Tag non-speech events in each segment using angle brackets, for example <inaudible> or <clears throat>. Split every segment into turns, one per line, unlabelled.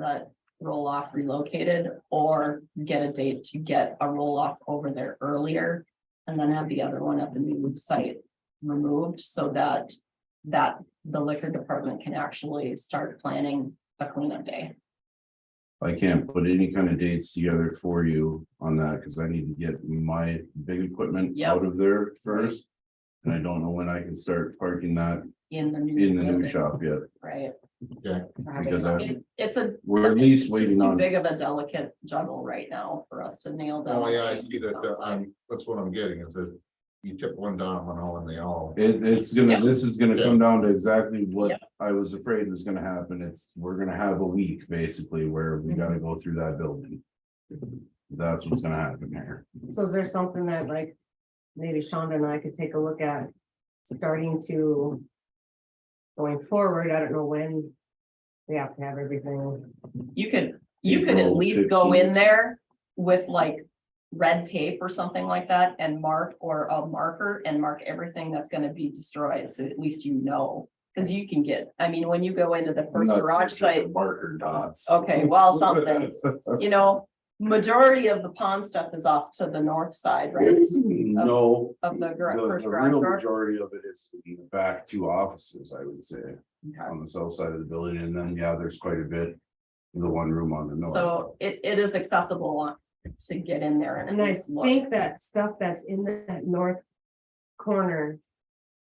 the roll off relocated or get a date to get a roll off over there earlier. And then have the other one at the new site removed so that that the liquor department can actually start planning a cleanup day.
I can't put any kind of dates together for you on that, because I need to get my big equipment
Yep.
out of there first. And I don't know when I can start parking that
In the new.
in the new
building,
shop yet.
Right.
Okay.
Because I-
It- It's a.
We're at least
it's just
waiting
too
on-
Big of a delicate juggle right now for us to nail down.
Oh, yeah, I see that, uh, I'm, that's what I'm getting, is that you tip one down, one all, and they all.
It, it's gonna,
Yeah.
this is gonna come down to exactly
Yeah.
what I was afraid was gonna happen. It's, we're gonna have a week basically where we
Mm-hmm.
gotta go through that building. That's what's gonna happen here.
So is there something that like, maybe Shonda and I could take a look at, starting to. Going forward, I don't know when. We have to have everything,
You could, you could at
April
least go
15th.
in there with like red tape or something like that and mark or a marker and mark everything that's gonna be destroyed, so at least you know. Cause you can get, I mean, when you go into the first
That's
garage
just like
site,
Marker dots.
okay,
<laughs>
well, something, you know, majority of the pond stuff is off to the north side, right?
No,
Of the gar-
The,
first
the
garage
real
door.
majority of it is in the back two offices, I would say,
Okay.
on the south side of the building, and then, yeah, there's quite a bit. in The one room on the north.
So it, it is accessible on- to get in there and
and
at
I
least look.
think that stuff that's in that north corner.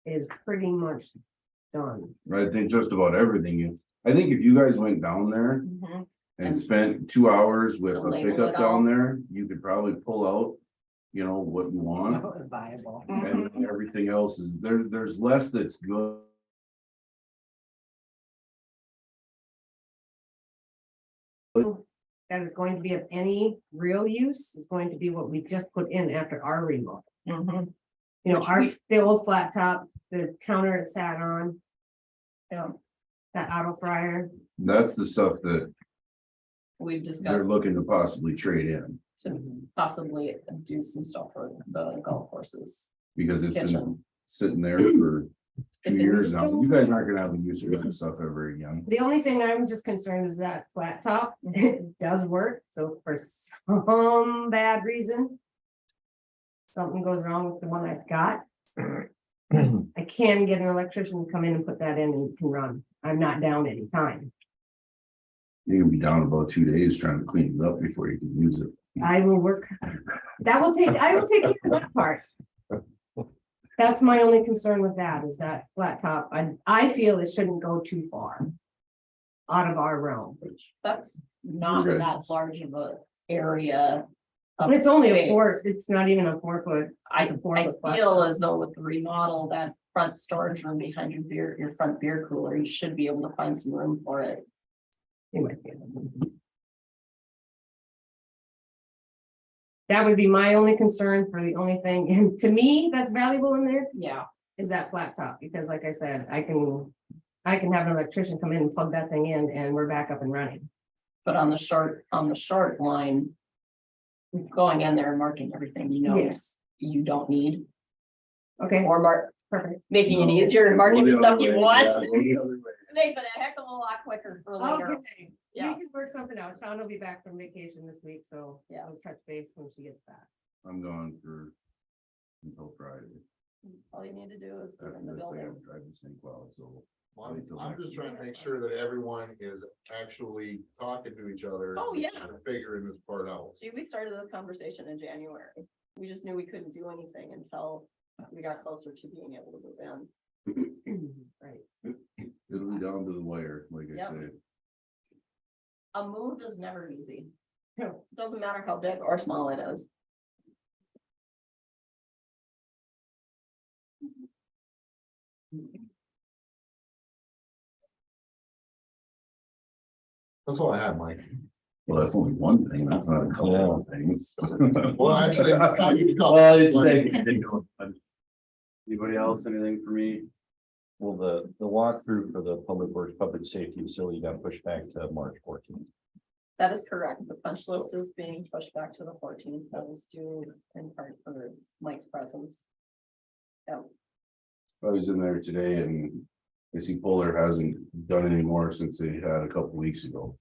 Is pretty much <laughs> done.
Right, I think just about everything, you- I think if you guys went down there
Mhm.
and
And-
spent two hours with
To
a
label
pickup
it all.
down there, you could probably pull out. You know, what you
<laughs>
want,
was viable.
Mm-hmm.
and everything else is, there, there's less that's good.
That is going to be of any real use, is going to be what we just put in after our remodel. Mm-hmm.
Mhm.
You know,
Which
our,
we-
the old flat top, the counter it sat on,
Yeah,
that auto fryer.
That's the stuff that
we've discussed.
they're looking to possibly trade in,
to possibly do some stuff for the golf courses
because it's been
kitchen.
sitting there for
If
two
it
years
was
now. You guys aren't gonna have a use for that stuff ever again.
The only thing I'm just concerned is that flat top, <laughs> it does work, so for some bad reason. Something goes wrong with the one I've got,
<clears throat>
I can get an electrician to come in and put that in and it can run, I'm not down any time.
You can be down about two days trying to clean it up before you can use it.
I will work, that will take, I will take care of that part. That's my only concern with that, is that flat top, I, I feel it shouldn't go too far. Out of our realm,
Which
That's not
Okay.
that large of a area. of
it's only a four,
space.
it's not even a four foot
I,
it's a four foot
I
flat
feel
top.
as though with the remodel, that front storage room behind your beer, your front beer cooler, you should be able to find some room for it.
Anyway. That would be my only concern for the only thing, and to me, that's valuable in there
Yeah,
is that flat top, because like I said, I can. I can have an electrician come in and plug that thing in and we're back up and running.
but on the short, on the short line. Going in there and marking everything you know
Yes.
you don't need
Okay,
or mark,
perfect.
making it easier and marking the stuff you want. Oh,
Well,
Makes it a heck of a lot quicker for later.
Okay, we
Yes.
can work something out. Sean will be back from vacation this week, so
Yeah.
I'll touch base when she gets back. <clears throat>
I'm going for. Until Friday.
All you need to do is
After
in the
this, I
building.
gotta drive to St. Cloud, so.
I'm, I'm just trying to make sure that everyone is actually talking to each other.
Oh, yeah.
and Figuring this part out.
Gee, we started this conversation in January. We just knew we couldn't do anything until we got closer to being able to move in.
Right.
It'll be down to the wire, like I
Yep.
said.
A move is never easy.
No.
Doesn't matter how big or small it is.
That's all I have, Mike.
Well, that's only one thing. That's not a couple of things.
Well,
<laughs>
actually. it's not even-
Well, it's like-
Well,
Anybody else, anything for me?
Well, the, the walkthrough for the public works, public safety facility got pushed back to March fourteenth.
That is correct. The punch list is being pushed back to the fourteenth. That was due in part for Mike's presence. Yeah,
I was in there today and I see Polar hasn't done any more since they had a couple weeks ago.